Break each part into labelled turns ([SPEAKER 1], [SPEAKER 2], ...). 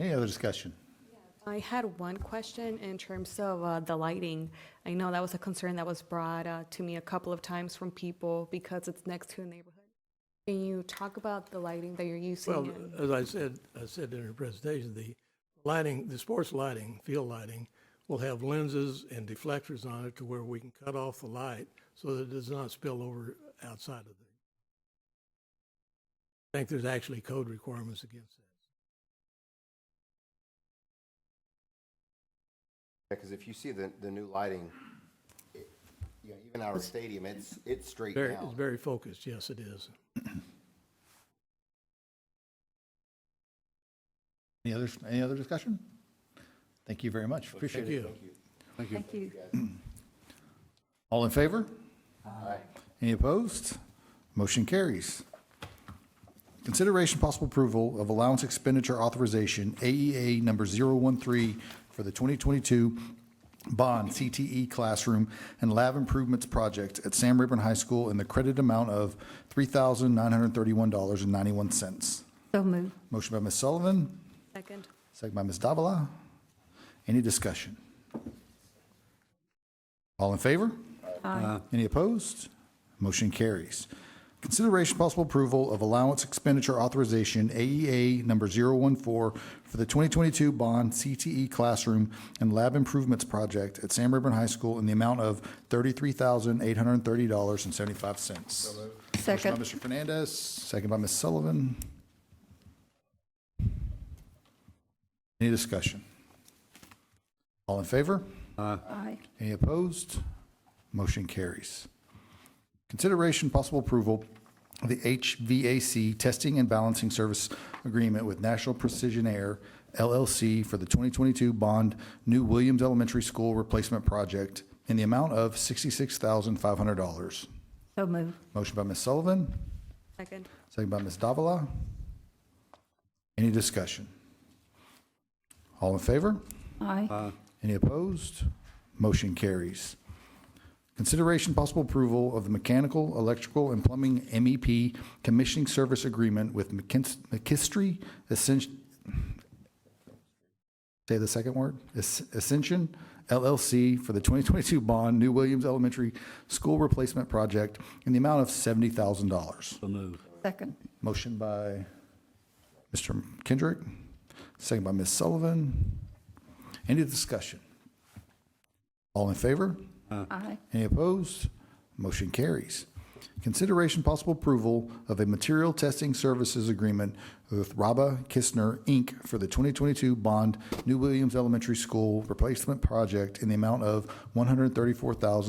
[SPEAKER 1] Any other discussion?
[SPEAKER 2] I had one question in terms of uh, the lighting. I know that was a concern that was brought uh, to me a couple of times from people because it's next to a neighborhood. Can you talk about the lighting that you're using?
[SPEAKER 3] Well,
[SPEAKER 2] and-
[SPEAKER 3] as I said, I said in her presentation, the lighting, the sports lighting, field lighting, will have lenses and deflectors on it to where we can cut off the light so that it does not spill over outside of the. I think there's actually code requirements against that.
[SPEAKER 4] Because if you see the, the new lighting, it- you know, even our stadium, it's, it's straight
[SPEAKER 3] Very, it's
[SPEAKER 4] down.
[SPEAKER 3] very focused, yes, it is.
[SPEAKER 1] Any other, any other discussion? Thank you very much. Appreciate
[SPEAKER 3] Thank
[SPEAKER 1] it.
[SPEAKER 3] you.
[SPEAKER 5] Thank you.
[SPEAKER 1] All in favor?
[SPEAKER 4] Aye.
[SPEAKER 1] Any opposed? Motion carries. Consideration possible approval of allowance expenditure authorization, AEA number 013 for the 2022 Bond CTE Classroom and Lab Improvements Project at Sam Rayburn High School in the credit amount of $3,931.91.
[SPEAKER 5] So moved.
[SPEAKER 1] Motion by Ms. Sullivan,
[SPEAKER 2] Second.
[SPEAKER 1] second by Ms. Davila. Any discussion? All in favor?
[SPEAKER 5] Aye.
[SPEAKER 1] Any opposed? Motion carries. Consideration possible approval of allowance expenditure authorization, AEA number 014, for the 2022 Bond CTE Classroom and Lab Improvements Project at Sam Rayburn High School in the amount of $33,830.75. Motion by
[SPEAKER 5] Second.
[SPEAKER 1] Mr. Fernandez, second by Ms. Sullivan. Any discussion? All in favor?
[SPEAKER 5] Aye.
[SPEAKER 1] Any opposed? Motion carries. Consideration possible approval of the HVAC Testing and Balancing Service Agreement with National Precision Air LLC for the 2022 Bond New Williams Elementary School Replacement Project in the amount of $66,500.
[SPEAKER 5] So moved.
[SPEAKER 1] Motion by Ms. Sullivan,
[SPEAKER 2] Second.
[SPEAKER 1] second by Ms. Davila. Any discussion? All in favor?
[SPEAKER 5] Aye.
[SPEAKER 1] Any opposed? Motion carries. Consideration possible approval of the mechanical, electrical, and plumbing MEP commissioning service agreement with McKins- McKistry Ascension, say the second word, As- Ascension LLC for the 2022 bond New Williams Elementary School Replacement Project in the amount of $70,000.
[SPEAKER 5] Second.
[SPEAKER 1] Motion by Mr. Kendrick, second by Ms. Sullivan. Any discussion? All in favor?
[SPEAKER 5] Aye.
[SPEAKER 1] Any opposed? Motion carries. Consideration possible approval of a material testing services agreement with Raba Kistner, Inc. for the 2022 Bond New Williams Elementary School Replacement Project in the amount of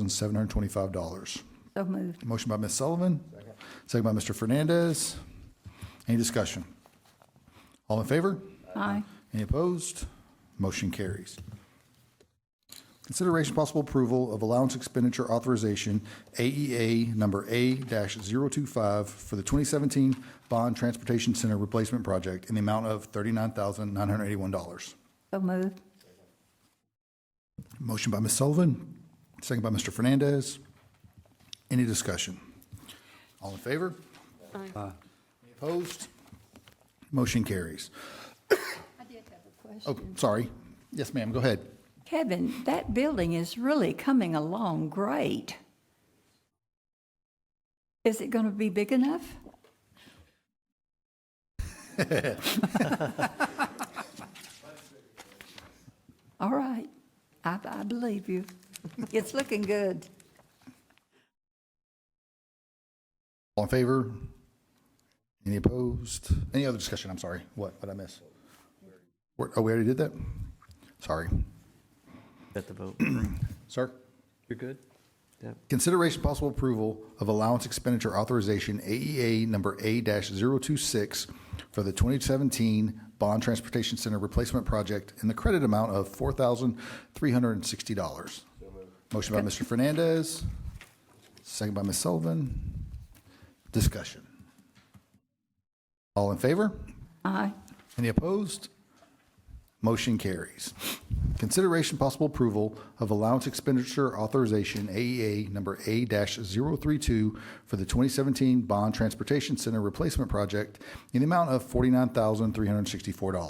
[SPEAKER 1] $134,725.
[SPEAKER 5] So moved.
[SPEAKER 1] Motion by Ms. Sullivan. Second. by Mr. Fernandez. Any discussion? All in favor?
[SPEAKER 5] Aye.
[SPEAKER 1] Any opposed? Motion carries. Consideration possible approval of allowance expenditure authorization, AEA number A-025 for the 2017 Bond Transportation Center Replacement Project in the amount of $39,981.
[SPEAKER 5] So moved.
[SPEAKER 1] Motion by Ms. Sullivan, second by Mr. Fernandez. Any discussion? All in favor?
[SPEAKER 2] Aye.
[SPEAKER 1] Any Opposed? Motion carries.
[SPEAKER 5] I did have a
[SPEAKER 1] Oh,
[SPEAKER 5] question.
[SPEAKER 1] sorry. Yes, ma'am, go ahead.
[SPEAKER 5] Kevin, that building is really coming along great. Is it going to be big enough? All right. I, I believe you. It's looking good.
[SPEAKER 1] All in favor? Any opposed? Any other discussion? I'm sorry. What, what I miss? Where- Oh, we already did that? Sorry.
[SPEAKER 6] At the vote.
[SPEAKER 1] Sir?
[SPEAKER 6] You're good? Yep.
[SPEAKER 1] Consideration possible approval of allowance expenditure authorization, AEA number A-026 for the 2017 Bond Transportation Center Replacement Project in the credit amount of $4,360. Motion by Mr. Fernandez, second by Ms. Sullivan. Discussion. All in favor?
[SPEAKER 5] Aye.
[SPEAKER 1] Any opposed? Motion carries. Consideration possible approval of allowance expenditure authorization, AEA number A-032 for the 2017 Bond Transportation Center Replacement Project in the amount of $49,364.